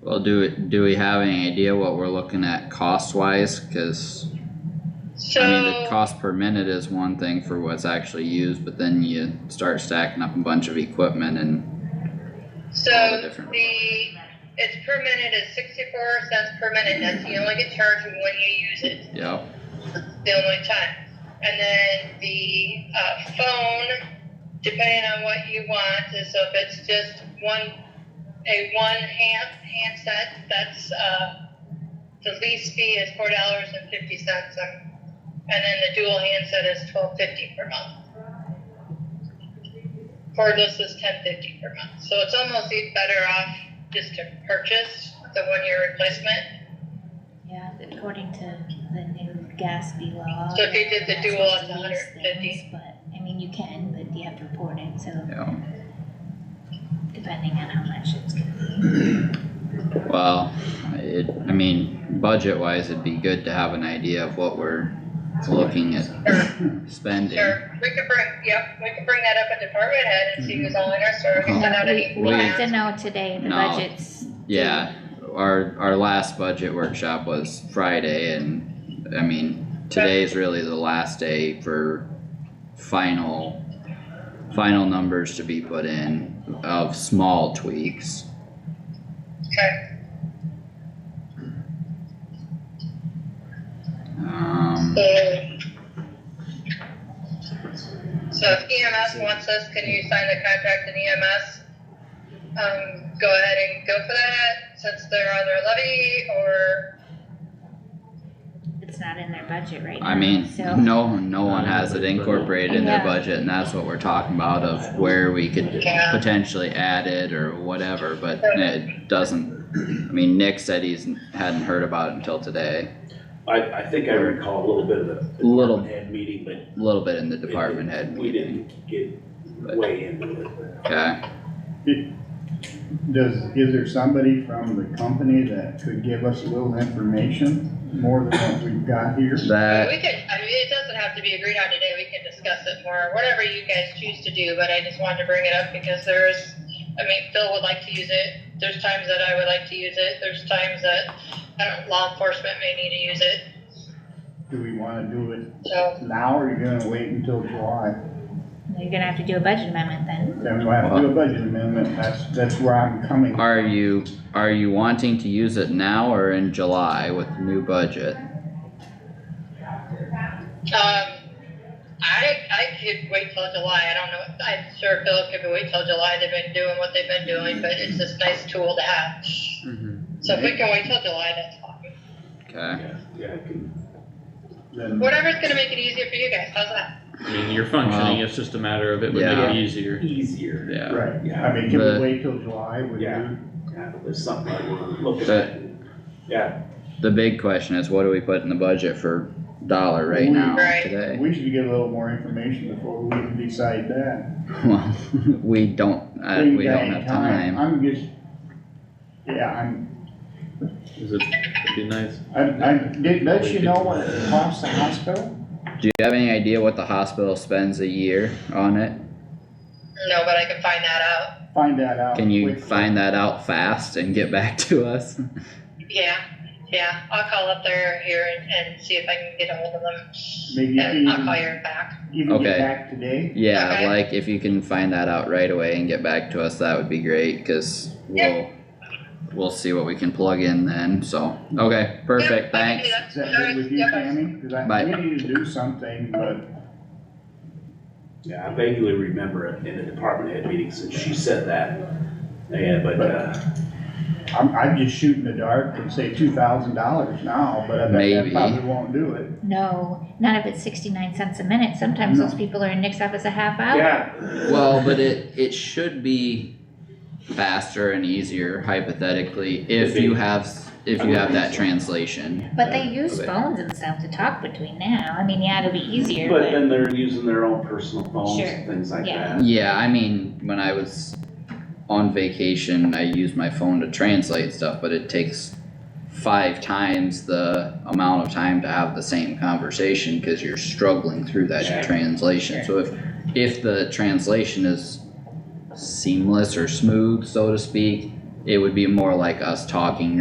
Well, do, we- do we have any idea what we're looking at cost wise? Cause So. I mean, the cost per minute is one thing for what's actually used, but then you start stacking up a bunch of equipment and, So all the different- the, it's per minute is sixty-four cents per minute, that's you only get charged when you use it, you know, the only time. And then the, uh, phone, depending on what you want, is so if it's just one, a one hand, handset, that's, uh, the lease fee is four dollars and fifty cents, um, and then the dual handset is twelve fifty per month. Cordless is ten fifty per month, so it's almost e- better off just to purchase the one-year replacement. Yeah, according to the new Gatsby law. So if you did the you're not dual, supposed to it's lease 150. things, But, I mean, you can, but you have to report it, so you know, depending on how much it's gonna be. well, it, I mean, budget wise, it'd be good to have an idea of what we're looking at spending. Sure, we could bring, yep, we could bring that up at department head and see who's all in our store, Oh. we can send out an We, we have to email. know today, the No. budget's. due. Yeah, our, our last budget workshop was Friday and, I mean, today's really the last day for final, final numbers to be put in of small tweaks. Okay, Um, so- So if EMS wants us, can you sign the contract in EMS? Um, go ahead and go for that, since they're on their levy, or, It's not in their budget right now. I mean, So, no, no one has it incorporated in their Yeah. budget and that's what we're talking about of where we could Yeah. potentially add it or whatever, but it doesn't. I mean, Nick said he's, hadn't heard about it until today, I, I think I recall a little bit of the. Little. department Head meeting, but. it a little bit in the didn't- department head We meeting, didn't get but- way into it. okay? Does, is there somebody from the company that could give us a little information, more than what we've got here? That, we could, I mean, it doesn't have to be agreed on today, we can discuss it more, whatever you guys choose to do, but I just wanted to bring it up because there's, I mean, Phil would like to use it, there's times that I would like to use it, there's times that, I don't, law enforcement may need to use it, Do we wanna do it so. now, or are you gonna wait until July? you're gonna have to do a budget amendment then. Then we'll have to do a budget amendment, that's, that's where I'm coming. from. are you, are you wanting to use it now or in July with the new budget? Um, I, I could wait till July, I don't know, I'm sure Phil could wait till July, they've been doing what they've been doing, but it's just a nice tool to have. So if we can wait till July, that's fine. Okay, Yeah, yeah, I can, Then Whatever's gonna make it easier for you guys, how's that? I mean, you're functioning, it's just a matter of it would make Yeah. it easier. easier. Yeah, Right, Yeah, I mean, can The- we wait till July? Would Yeah. you- yeah, there's something I wanna look That- at. Yeah, the big question is what do we put in the budget for dollar right now, Right. today? We should get a little more information before we even decide that. Well, we don't, uh, we got don't any have time. I'm just, yeah, I'm, is it, it'd be nice. I, I, did, does she know what it costs the hospital? Do you have any idea what the hospital spends a year on it? No, but I can find that out, Find that out. Can you quickly. find that out fast and get back to us? yeah, yeah, I'll call up there here and, and see if I can get ahold of them. Maybe you And I'll can- call you back, Even Okay. get back today? Yeah, Okay. like if you can find that out right away and get back to us, that would be great, cause we'll, we'll see what we can plug in then, so, okay, perfect, Yeah, I can do thanks. that. Is that good with you, Yep. Tammy? Cause I, Bye. we need to do something, but yeah, I vaguely remember it in the department head meeting since she said that. Yeah, but, uh, I'm, I'm just shooting the dark and say two thousand dollars now, but I bet Maybe. that probably won't do it. No, not if it's sixty-nine cents a minute. Sometimes No. those people are in Nick's office a half hour. yeah. Well, but it, it should be faster and easier hypothetically, if you have, s- if you have that translation. But they use Okay. phones and stuff to talk between now. I mean, yeah, it'll be easier, But but then they're using their own personal phones, Sure, and things like yeah. that. Yeah, I mean, when I was on vacation, I used my phone to translate stuff, but it takes five times the amount of time to have the same conversation because you're struggling through that Sure. translation. So if if the translation is seamless or smooth, so to speak, it would be more like us talking